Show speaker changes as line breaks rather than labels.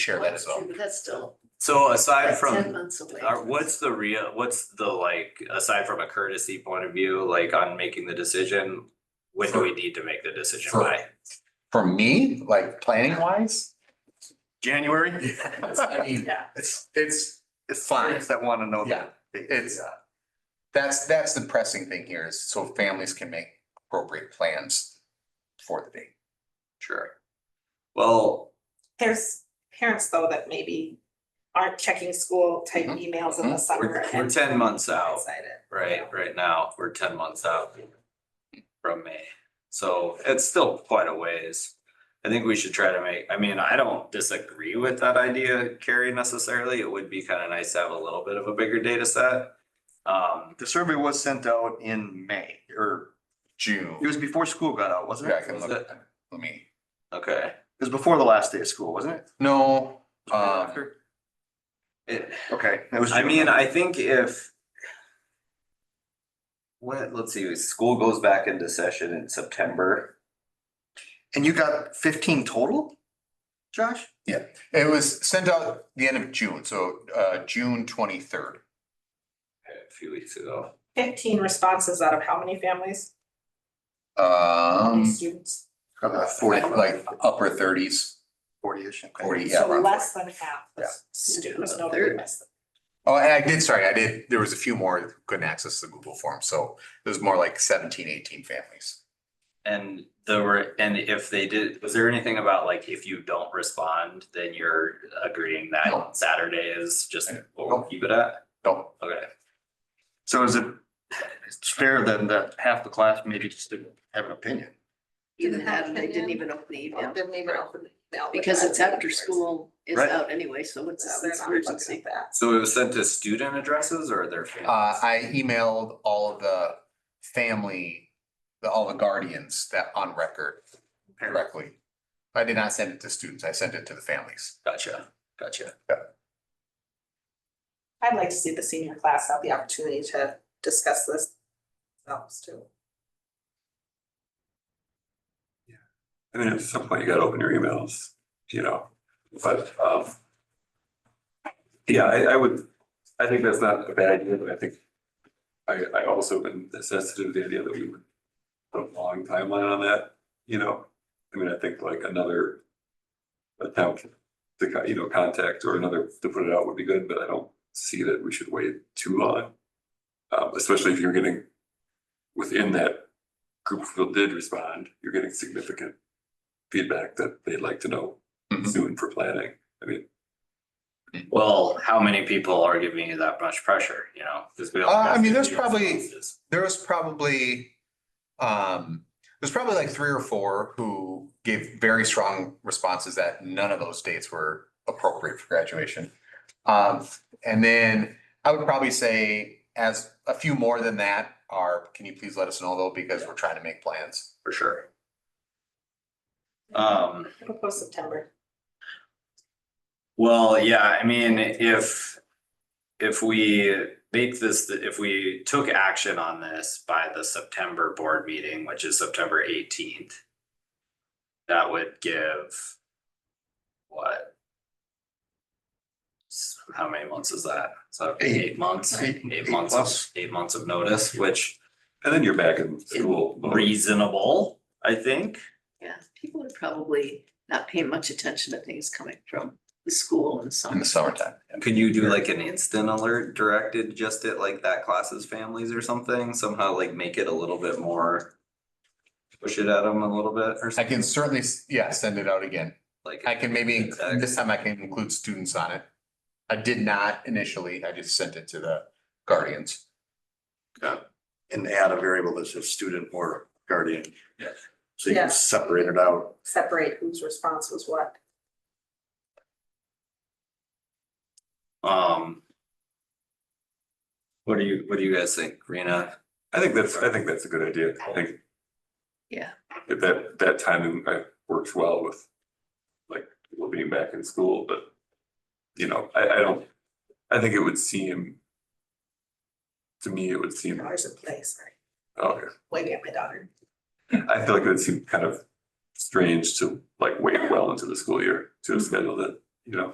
share that as well.
That's still,
So aside
that's ten
from,
months away.
are, what's the real, what's the like, aside from a courtesy point of view, like on making the decision? When do we need to make the decision
For-
by?
For me, like planning wise, January. I mean,
Yeah,
it's, it's,
It's
Fine.
parents that want to know
yeah,
that. They-
It's-
yeah.
that's, that's the pressing thing here is so families can make appropriate plans for the date.
Sure. Well,
There's parents though that maybe aren't checking school type
Mhm.
emails in the summer
Mm-hmm. we're, we're
and
ten months out.
excited.
right, right now, we're ten months out from May. So it's still quite a ways. I think we should try to make, I mean, I don't disagree with that idea, Carrie, necessarily. It would be kind of nice to have a little bit of a bigger data set. Um,
The survey was sent out in May or
June.
it was before school got out, wasn't
Yeah, I
it?
can
It
Was
look, let me,
okay,
was before the last day of school, wasn't it?
no, um,
After?
it,
Okay, that was.
I
June.
mean, I think if. What, let's see, school goes back into session in September.
And you got fifteen total, Josh?
it was sent out the end of June, so, uh, June twenty-third.
A few weeks ago.
Fifteen responses out of how many families, how many
Um,
students?
About forty,
like upper thirties,
forty-ish. okay.
forty, yeah.
So
around 40.
less than half the
Yeah.
students notably less than.
Oh, and I did, sorry, I did, there was a few more that couldn't access the Google form, so there's more like 17, 18 families.
And there were, and if they did, was there anything about like if you don't respond, then you're agreeing
No.
that Saturday is just what
No.
we'll keep it at?
Don't,
Okay,
So is it, it's fair then that half the class maybe just didn't have an opinion?
even
Didn't
had,
have
they didn't
opinion.
even open the
Yeah,
email,
didn't even open the email.
because it's after school is
Right.
out anyway, so it's,
So
it's
they're not looking
emergency.
at that.
so it was sent to student addresses or their
uh,
families?
I emailed all of the family, the, all the guardians that on record directly. I did not send it to students, I sent it to the families.
Gotcha, gotcha.
I'd like to see the senior class have the opportunity to discuss this themselves too.
I mean, at some point you gotta open your emails, you know, but, um. Yeah, I, I would, I think that's not a bad idea, but I think. I, I also been sensitive to the idea that we would put a long timeline on that, you know, I mean, I think like another. Attempt to, co- you know, contact or another to put it out would be good, but I don't see that we should wait too long. Um, especially if you're getting within that group who did respond, you're getting significant feedback that they'd like to know
Mhm.
soon for planning. I mean,
Well, how many people are giving you that much pressure, you know? 'Cause we all
Uh, I
have
mean,
to
there's
do
probably-
responses.
There was probably, um, there's probably like three or four who gave very strong responses that none of those dates were appropriate for graduation. Um, and then I would probably say as a few more than that are, can you please let us know though, because we're trying to make plans.
For sure. Um.
I propose September.
Well, yeah, I mean, if, if we make this, if we took action on this by the September board meeting, which is September eighteenth, that would give what? S- How many months is that? So
Eight.
eight months,
Eight-
eight
eight
months,
plus.
of- eight months of notice, which
and then you're back in school. mode.
reasonable, I think.
Yeah, people are probably not paying much attention to things coming from the school and
In the
summer.
summertime.
Could you do like an instant alert directed just at like that class's families or something? Somehow like make it a little bit more. Push it at them a little bit or
I
something
can certainly, s- yeah, send it out again.
like.
I can maybe,
Exactly.
this time I can include students on it. I did not initially, I just sent it to the guardians.
and add a variable that says student or guardian.
Yes.
So you
Yeah.
can separate it out.
Separate whose response was what.
Um. What do you, what do you guys think, Rena?
I think that's, I think that's a good idea. I think.
Yeah.
If that, that timing uh, works well with, like, people being back in school, but, you know, I, I don't, I think it would seem. To me, it would seem,
Dollars in place, sorry,
okay,
waving at my daughter.
I feel like it would seem kind of strange to like wait well into the school year to schedule that, you know,